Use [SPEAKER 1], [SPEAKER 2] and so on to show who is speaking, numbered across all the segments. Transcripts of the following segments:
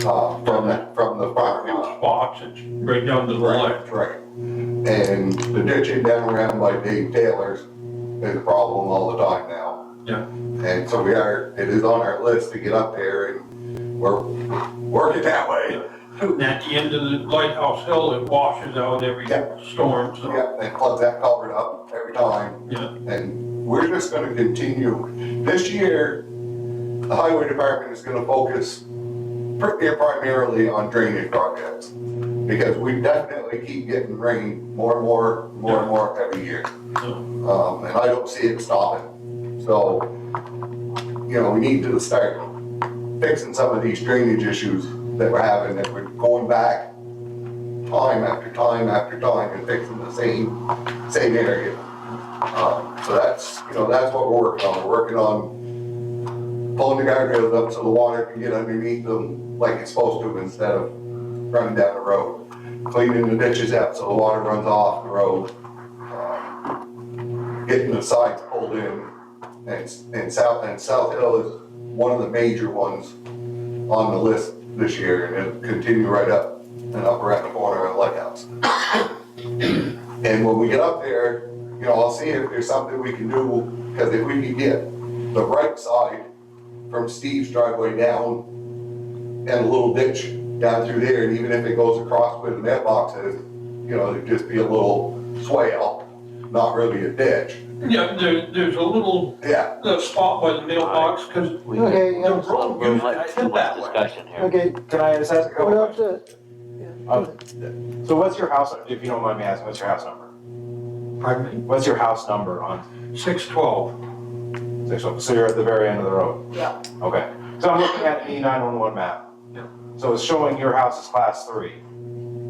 [SPEAKER 1] top from the, from the property line.
[SPEAKER 2] spots, it's right down to the left.
[SPEAKER 1] Right. And the ditching down around by Dave Taylor's is a problem all the time now.
[SPEAKER 2] Yeah.
[SPEAKER 1] And so we are, it is on our list to get up there and we're working that way.
[SPEAKER 2] And at the end of the lighthouse hill, it washes out every
[SPEAKER 1] Yeah.
[SPEAKER 2] storm, so,
[SPEAKER 1] Yeah, and plug that culvert up every time.
[SPEAKER 2] yeah,
[SPEAKER 1] And we're just gonna continue. This year, the highway department is gonna focus pri- primarily on drainage projects. Because we definitely keep getting rain more and more, more and more every year.
[SPEAKER 2] so,
[SPEAKER 1] um, and I don't see it stopping. So, you know, we need to start fixing some of these drainage issues that we're having, that we're going back time after time after time and fixing the same, same area. Um, so that's, you know, that's what we're working on, we're working on pulling the guardrails up so the water can get underneath them like it's supposed to instead of running down the road. Cleaning the ditches out so the water runs off the road. Um, getting the sides pulled in. And, and South, and South Hill is one of the major ones on the list this year, and it'll continue right up and up around the corner of the lighthouse. And when we get up there, you know, I'll see if there's something we can do, because if we can get the right side from Steve's driveway down and a little ditch down through there, and even if it goes across with the mailboxes, you know, it'd just be a little swale, not really a ditch.
[SPEAKER 2] yeah, there, there's a little,
[SPEAKER 1] Yeah,
[SPEAKER 2] the spot by the mailbox, cause
[SPEAKER 3] We-
[SPEAKER 4] Okay,
[SPEAKER 2] the
[SPEAKER 4] yeah,
[SPEAKER 2] road
[SPEAKER 3] We're
[SPEAKER 2] used
[SPEAKER 3] much
[SPEAKER 2] to
[SPEAKER 3] too
[SPEAKER 2] end
[SPEAKER 3] much
[SPEAKER 2] that way.
[SPEAKER 3] discussion here.
[SPEAKER 4] okay,
[SPEAKER 5] Can I just ask a
[SPEAKER 4] what
[SPEAKER 5] couple?
[SPEAKER 4] else, uh,
[SPEAKER 5] Uh, So what's your house, if you don't mind me asking, what's your house number?
[SPEAKER 2] Pardon
[SPEAKER 5] What's your house number on
[SPEAKER 2] me? Six twelve,
[SPEAKER 5] six oh, so you're at the very end of the road?
[SPEAKER 2] Yeah.
[SPEAKER 5] Okay, so I'm looking at the E nine one one map.
[SPEAKER 2] Yeah.
[SPEAKER 5] So it's showing your house is class three.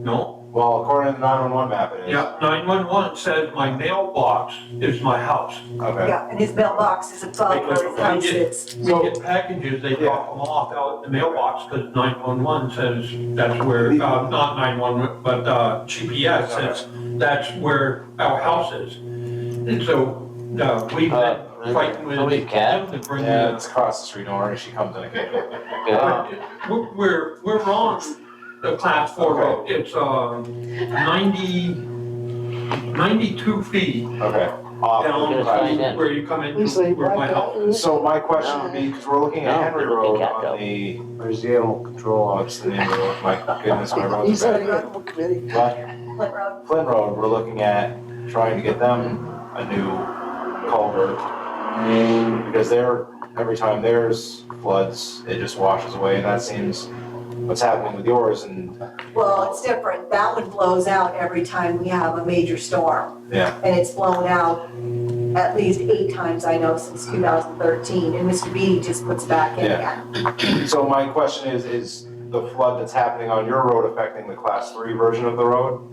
[SPEAKER 2] no,
[SPEAKER 5] Well, according to the nine one one map, it is.
[SPEAKER 2] yeah, nine one one says my mailbox is my house.
[SPEAKER 5] Okay,
[SPEAKER 6] Yeah, and his mailbox is above where his house is.
[SPEAKER 2] We
[SPEAKER 5] So-
[SPEAKER 2] get packages, they drop them off out in the mailbox, cause nine one one says that's where, uh, not nine one, but, uh, GPS says that's where our house is. And so, uh, we've
[SPEAKER 3] Uh,
[SPEAKER 2] been fighting with
[SPEAKER 3] somebody's cat?
[SPEAKER 2] them to bring
[SPEAKER 5] yeah,
[SPEAKER 2] in.
[SPEAKER 5] it's across the street, don't worry, she comes in again.
[SPEAKER 3] Okay.
[SPEAKER 2] We're, we're, we're on the class four road, it's, um, ninety, ninety-two feet
[SPEAKER 5] Okay. Um,
[SPEAKER 2] down
[SPEAKER 3] We're gonna sign
[SPEAKER 2] to
[SPEAKER 3] in.
[SPEAKER 2] where you come in,
[SPEAKER 4] he's like,
[SPEAKER 2] where my
[SPEAKER 4] why
[SPEAKER 2] house
[SPEAKER 4] don't-
[SPEAKER 5] So my question would be, because we're looking
[SPEAKER 3] No,
[SPEAKER 5] at Henry
[SPEAKER 3] we're looking
[SPEAKER 5] Road
[SPEAKER 3] at
[SPEAKER 5] on
[SPEAKER 3] Delta.
[SPEAKER 5] the, where's the animal control? Oh, it's the name of the road, my goodness, my roads
[SPEAKER 4] he's
[SPEAKER 5] are
[SPEAKER 4] on
[SPEAKER 5] bad.
[SPEAKER 4] the animal committee.
[SPEAKER 5] But
[SPEAKER 6] Flint Road.
[SPEAKER 5] Flynn Road, we're looking at trying to get them a new culvert. Because they're, every time theirs floods, it just washes away, and that seems what's happening with yours, and,
[SPEAKER 6] Well, it's different. That one blows out every time we have a major storm.
[SPEAKER 5] yeah,
[SPEAKER 6] And it's blown out at least eight times, I know, since 2013. And Mr. Beatty just puts back in
[SPEAKER 5] Yeah.
[SPEAKER 6] again.
[SPEAKER 5] so my question is, is the flood that's happening on your road affecting the class three version of the road?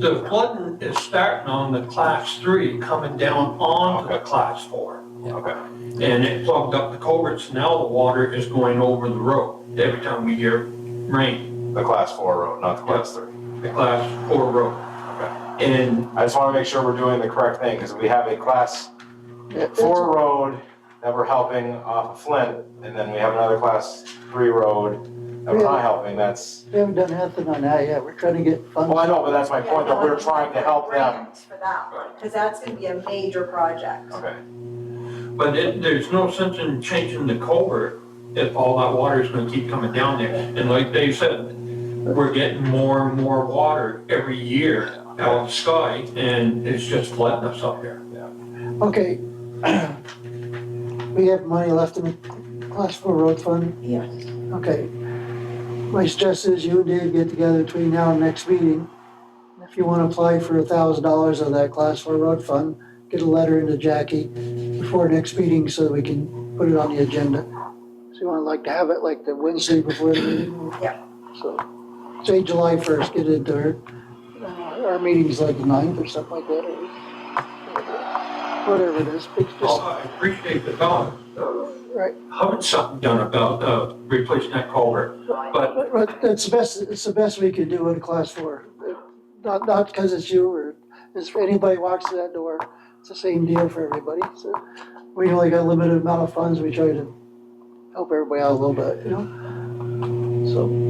[SPEAKER 2] The flooding is starting on the class three, coming down onto the class four.
[SPEAKER 5] Okay,
[SPEAKER 2] And it plugged up the culverts, now the water is going over the road every time we get rain,
[SPEAKER 5] the class four road, not the class three.
[SPEAKER 2] the class four road. And
[SPEAKER 5] I just wanna make sure we're doing the correct thing, because we have a class four road that we're helping off of Flint, and then we have another class three road that we're not helping, that's,
[SPEAKER 4] We haven't done nothing on that yet, we're trying to get funds.
[SPEAKER 5] well, I know, but that's my point, that we're trying to help them.
[SPEAKER 6] Grant For that one, because that's going to be a major project.
[SPEAKER 5] Okay,
[SPEAKER 2] But it, there's no sense in changing the culvert if all that water is gonna keep coming down there. And like Dave said, we're getting more and more water every year out of the sky, and it's just flooding us up here.
[SPEAKER 4] Okay. We have money left in the class four road fund?
[SPEAKER 6] Yeah.
[SPEAKER 4] Okay. My stress is you and Dave get together between now and next meeting. If you wanna apply for a thousand dollars of that class four road fund, get a letter into Jackie before next meeting so that we can put it on the agenda. So you wanna like to have it like the Wednesday before the meeting?
[SPEAKER 6] Yeah.
[SPEAKER 4] So, say July first, get it there. Uh, Our meeting's like the ninth or something like that, or whatever it is, but just-
[SPEAKER 2] Well, I appreciate the thought of
[SPEAKER 4] Right.
[SPEAKER 2] having something done about, uh, replacing that culvert, but
[SPEAKER 4] But, but that's the best, it's the best we could do in class four. Not, not because it's you or it's for anybody walks through that door, it's the same deal for everybody. So we only got a limited amount of funds, we try to help everybody out a little bit, you know? so.